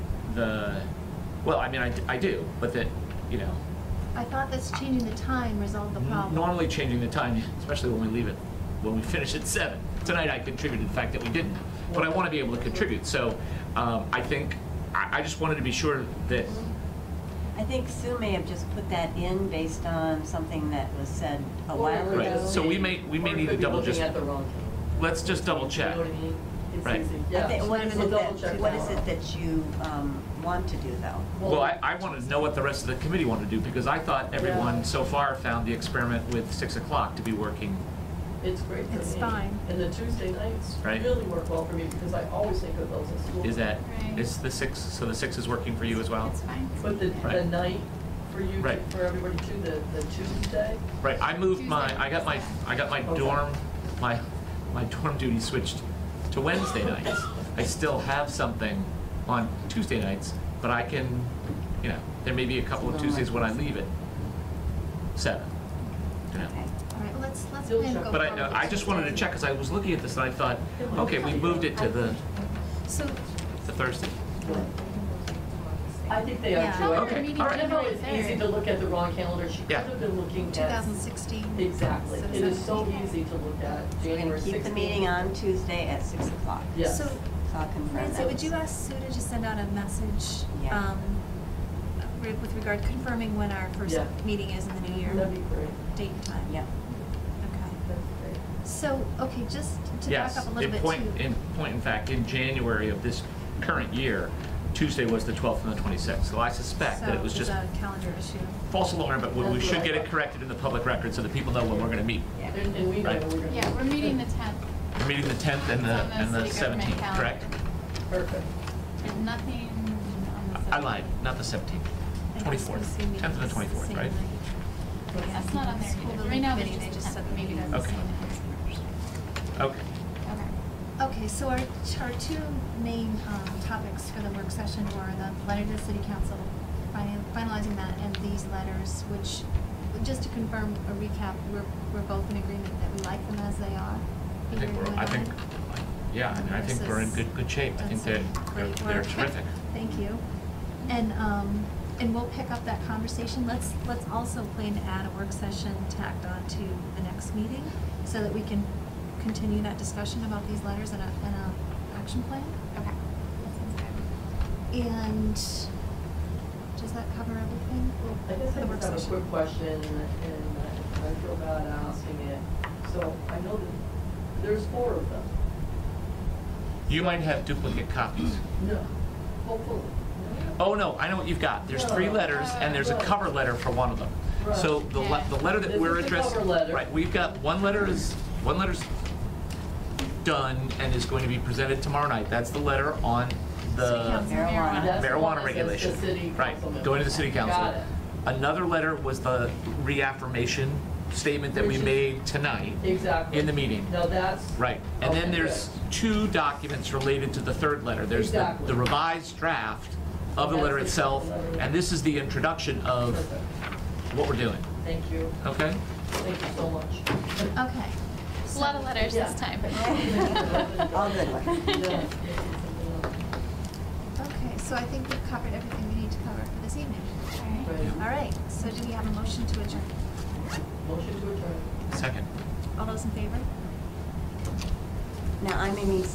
the, well, I mean, I, I do, but that, you know, I thought that's changing the time resolved the problem. normally changing the time, especially when we leave it, when we finish at seven. Tonight I contributed the fact that we didn't, but I want to be able to contribute. So um, I think, I, I just wanted to be sure that, I think Sue may have just put that in based on something that was said a Or while it ago. right, so we may, we may need to double just, Or it could be looking at the wrong. let's just double check. You know what I mean? It's Right. easy. I Yeah. think- What is We'll it double check that, what that is one. it that you um, want to do, though? Well, I, I wanted to know what the rest of the committee wanted to do, because I thought everyone Yeah. so far found the experiment with six o'clock to be working. It's great for me. It's fine. And the Tuesday nights Right. really work well for me because I always think of those at school. Is that, Right. is the six, so the six is working for you as well? It's fine. But the, the Right. night for you, Right. to- for everybody too, the, the Tuesday, Right, I moved my, Tuesday. I got my, I got my Okay. dorm, my, my dorm duty switched to Wednesday nights. I still have something on Tuesday nights, but I can, you know, there may be a couple of Tuesdays when I leave at seven. you know. Okay. All right, well, let's, let's Double plan to check. go. But I, no, forward. I just wanted to check, because I was looking at this and I thought, okay, we moved it to the, So, the Thursday. I think they are Yeah. too. Oh, I the think meeting Okay, all right. It's easy to look at the wrong calendar. She could Yeah. have been looking at. 2016. Exactly. So It is so 17. easy to look at We're going January to keep the 16th. meeting on Tuesday at 6 o'clock. Yes. So, So I'll confirm Nancy, that. would you ask Sue to just send out a message Yeah. um, re- with regard confirming when our first Yeah. meeting is in the new year? That'd be great. Date and time? Yeah. Okay. That's great. So, okay, just to back Yes, up a in little bit point, too. in point in fact, in January of this current year, Tuesday was the twelfth and the twenty-sixth. So I suspect that it was just So it's a calendar issue. false alarm, but we we That's should what I get it thought. corrected in the public record so that people know when we're gonna meet. Yeah. And, and we know Right. we're going to. Yeah, we're meeting the tenth. We're meeting the tenth and the, and the seventeenth, correct? Perfect. And nothing on the I- I lied, not the seventeenth, twenty-fourth, tenth and the twenty-fourth, right? That's not on there either. Right now, there's just a tenth, maybe that's the Okay. same. Okay, Okay. Okay, so our, our two main um, topics for the work session were the letter to the city council, final- finalizing that, and these letters, which, just to confirm a recap, we're, we're both in agreement that we like them as they are. I think Peter, we're, you and I think, yeah, I mean, I think we're in good, good shape. I Done think some they're, they're great they're work. terrific. Thank you. And, um, and we'll pick up that conversation. Let's, let's also plan to add a work session tacked on to the next meeting so that we can continue that discussion about these letters and a, and a action plan. Okay. That sounds good. And does that cover everything? I guess for I the work just have a session? quick question, and I- I feel bad asking it. So I know that there's four of them. You might have duplicate copies. No. Hopefully. Oh, no, I know what you've got. There's three No. letters, and there's a Right. cover letter for one of them. So Right. the, le- the letter that This we're is the addressing. cover letter. Right, we've got, one letter is, one letter's done and is going to be presented tomorrow night. That's the letter on the council. Marijuana. That's the one marijuana that says regulation. the city council Right, going to the city member. council. Got it. Another letter was the reaffirmation statement that we Which is- made tonight. Exactly. In the meeting. No, that's. Right, and then Okay, there's good. two documents related to the third letter. There's the Exactly. the revised draft of the That's letter the itself, letter. and this is the introduction of Perfect. what we're doing, Thank you. okay? Thank you so much. Okay. It's A lot of letters Yeah. this time. All good ones. Yeah. Okay, so I think we've covered everything we need to cover for this evening. Alright. Right. All right, so do we have a motion to adjourn? Motion to adjourn. Second. All those in favor? Now, I'm Amy